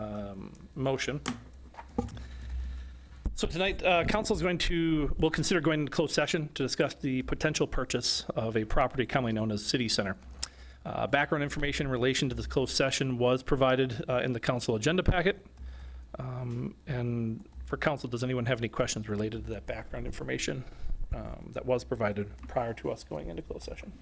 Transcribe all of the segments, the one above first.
um, motion. So tonight, uh, council is going to, will consider going into closed session to discuss the potential purchase of a property commonly known as City Center. Uh, Background information in relation to this closed session was provided uh, in the council agenda packet. Um, And for council, does anyone have any questions related to that background information um, that was provided prior to us going into closed session?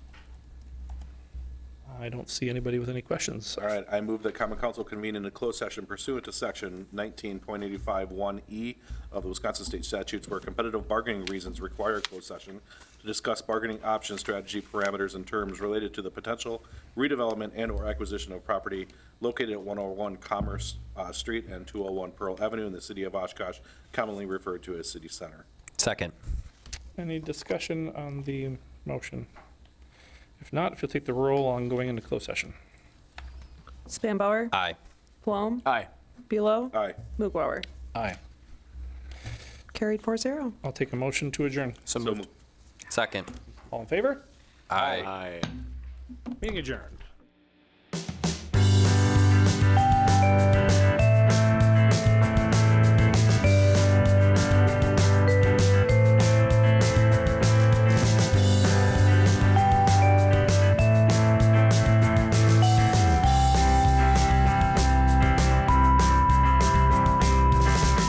I don't see anybody with any questions. All right, I move that common council convene in a closed session pursuant to section 19.851E E of the Wisconsin State Statutes where competitive bargaining reasons require a closed session to discuss bargaining options, strategy, parameters, and terms related to the potential redevelopment and/or acquisition of property located at 101 Commerce uh, Street and 201 Pearl Avenue in the city of Oshkosh, commonly referred to as City Center. Second. Any discussion on the motion? If not, if you'll take the roll on going into closed session. Spanbauer. Aye. Flom. Aye. Bealow. Aye. Muglauer. Aye. Carried 4-0. I'll take a motion to adjourn. So moved. Second. All in favor? Aye. Meeting adjourned.